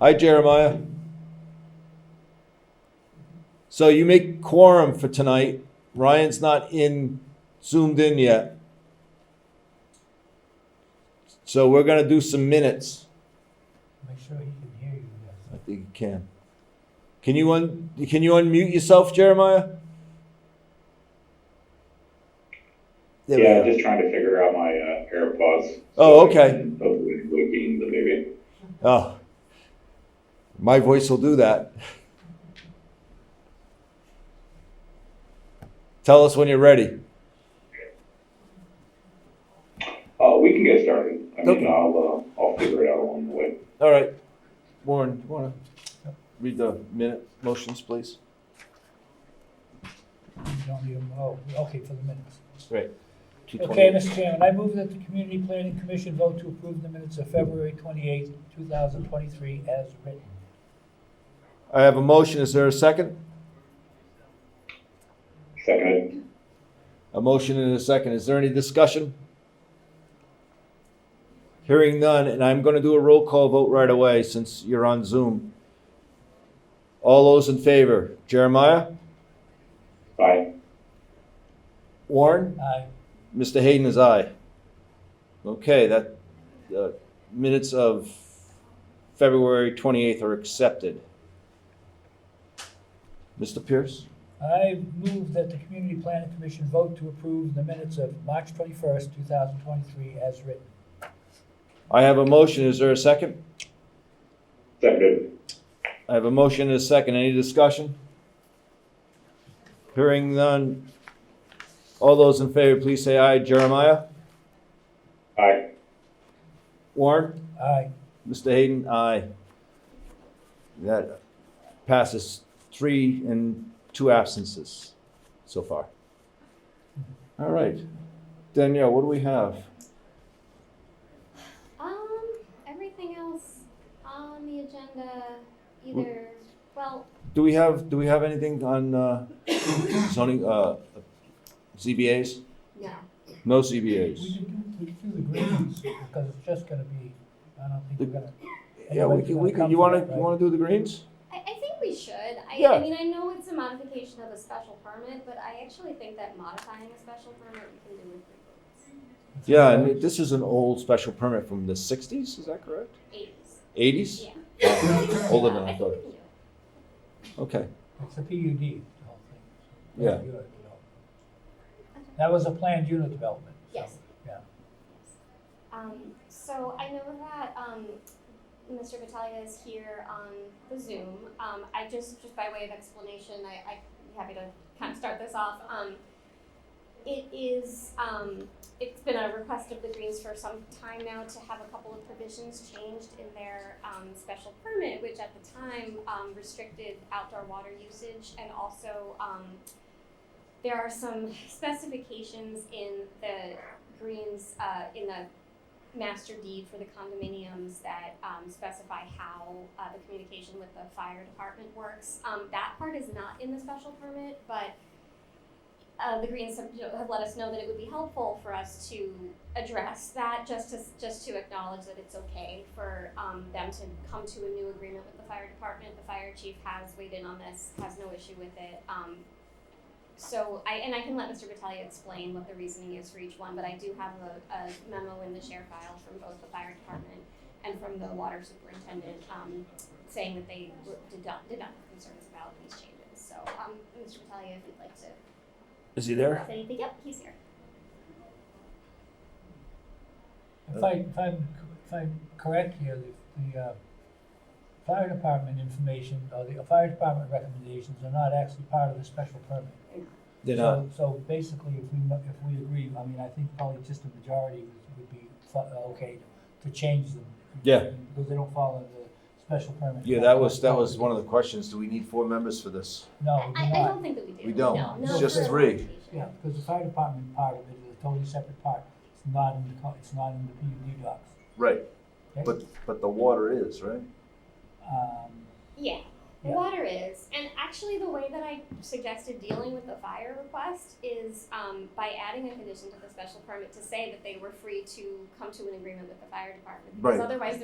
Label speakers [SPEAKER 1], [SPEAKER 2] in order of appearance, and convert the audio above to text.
[SPEAKER 1] Hi, Jeremiah. So you make quorum for tonight. Ryan's not in, zoomed in yet. So we're gonna do some minutes.
[SPEAKER 2] Make sure he can hear you
[SPEAKER 1] I
[SPEAKER 2] guys.
[SPEAKER 1] think you can. Can you un, can you unmute yourself, Jeremiah? There we
[SPEAKER 3] yeah,
[SPEAKER 1] go.
[SPEAKER 3] just trying to figure out my uh, AirPods.
[SPEAKER 1] Oh, okay.
[SPEAKER 3] Hopefully, looking the maybe.
[SPEAKER 1] Oh, my voice will do that. Tell us when you're ready.
[SPEAKER 3] Uh, we can get started. I mean,
[SPEAKER 1] Okay.
[SPEAKER 3] I'll uh, I'll figure it out along the way.
[SPEAKER 1] All right, Warren, you wanna read the minute motions, please?
[SPEAKER 2] You don't need them, oh, okay, for the minutes.
[SPEAKER 1] Right.
[SPEAKER 2] Okay, Mr. Chairman, I move that the Community Planning Commission vote to approve the minutes of February twenty-eighth, two thousand twenty-three as written.
[SPEAKER 1] I have a motion, is there a second?
[SPEAKER 3] Seconded.
[SPEAKER 1] A motion and a second, is there any discussion? Hearing none, and I'm gonna do a roll call vote right away since you're on Zoom. All those in favor, Jeremiah,
[SPEAKER 3] Aye.
[SPEAKER 1] Warren?
[SPEAKER 2] Aye.
[SPEAKER 1] Mr. Hayden is aye. Okay, that, the minutes of February 28th are accepted. Mr. Pierce?
[SPEAKER 2] I move that the Community Planning Commission vote to approve the minutes of March twenty-first, two thousand twenty-three as written.
[SPEAKER 1] I have a motion, is there a second?
[SPEAKER 3] Seconded.
[SPEAKER 1] I have a motion and a second, any discussion? Hearing none. All those in favor, please say aye. Jeremiah?
[SPEAKER 3] Aye.
[SPEAKER 1] Warren?
[SPEAKER 2] Aye.
[SPEAKER 1] Mr. Hayden, aye. That passes three and two absences so far. All right. Danielle, what do we have?
[SPEAKER 4] Um, everything else on the agenda, either, well,
[SPEAKER 1] Do we have, do we have anything on uh, zoning, uh, ZBAs?
[SPEAKER 4] no.
[SPEAKER 1] No
[SPEAKER 2] We
[SPEAKER 1] ZBAs?
[SPEAKER 2] could do, we could do the greens, because it's just gonna be, I don't think we're gonna.
[SPEAKER 1] Yeah, we can, we can, you wanna, you wanna do the greens?
[SPEAKER 4] I, I think we should. I,
[SPEAKER 1] Yeah.
[SPEAKER 4] I mean, I know it's a modification of a special permit, but I actually think that modifying a special permit we can do with three
[SPEAKER 1] Yeah, and this is an old special permit from the sixties, is that correct?
[SPEAKER 4] votes. Eight,
[SPEAKER 1] Eighties?
[SPEAKER 4] yeah.
[SPEAKER 1] Older than I
[SPEAKER 4] think
[SPEAKER 1] thought.
[SPEAKER 4] we can do it.
[SPEAKER 1] Okay,
[SPEAKER 2] It's a PUD, the whole thing.
[SPEAKER 1] Yeah.
[SPEAKER 2] Unit development. That was a planned unit development. so,
[SPEAKER 4] Yes.
[SPEAKER 2] Yeah.
[SPEAKER 4] Um, so I know that, um, Mr. Battaglia is here on the Zoom. Um, I just, just by way of explanation, I, I'd be happy to kind of start this off. Um, it is, um, it's been a request of the Greens for some time now to have a couple of provisions changed in their, um, special permit, which at the time, um, restricted outdoor water usage and also, um, there are some specifications in the Greens, uh, in the master deed for the condominiums that um, specify how uh, the communication with the fire department works. Um, that part is not in the special permit, but uh, the Greens have, you know, have let us know that it would be helpful for us to address that, just to just to acknowledge that it's okay for um, them to come to a new agreement with the fire department. The fire chief has weighed in on this, has no issue with it. Um, so I, and I can let Mr. Battaglia explain what the reasoning is for each one, but I do have a, a memo in the share file from both the fire department and from the water superintendent, um, saying that they were- did not, did not have concerns about these changes. So, um, Mr. Battaglia, if you'd like to
[SPEAKER 1] is he there?
[SPEAKER 4] say anything, yep, he's here.
[SPEAKER 2] If I, if I'm, if I'm correct here, the, the, uh, fire department information, or the fire department recommendations are not actually part of the special permit.
[SPEAKER 1] They're
[SPEAKER 2] So-
[SPEAKER 1] not,
[SPEAKER 2] So basically, if we, mo- if we agree, I mean, I think probably just a majority would, would be fu- uh, okay to change them.
[SPEAKER 1] Yeah.
[SPEAKER 2] Because they don't follow the special permit.
[SPEAKER 1] yeah, that was, that was one of the questions, do we need four members for this?
[SPEAKER 2] No, we do
[SPEAKER 4] I, I
[SPEAKER 2] Oh, not.
[SPEAKER 4] don't think that we do.
[SPEAKER 1] We don't.
[SPEAKER 4] No,
[SPEAKER 2] It's
[SPEAKER 4] no,
[SPEAKER 2] just
[SPEAKER 4] for
[SPEAKER 1] three.
[SPEAKER 4] application.
[SPEAKER 2] Yeah, because the fire department part of it is a totally separate part. It's not in the, co- it's not in the PUD docs.
[SPEAKER 1] Right,
[SPEAKER 2] okay?
[SPEAKER 1] but, but the water is, right?
[SPEAKER 2] Um,
[SPEAKER 4] Yeah, the
[SPEAKER 2] Yeah.
[SPEAKER 4] water is. And actually, the way that I suggested dealing with the fire request is um, by adding a condition to the special permit to say that they were free to come to an agreement with the fire department. Because
[SPEAKER 1] Right.
[SPEAKER 4] otherwise,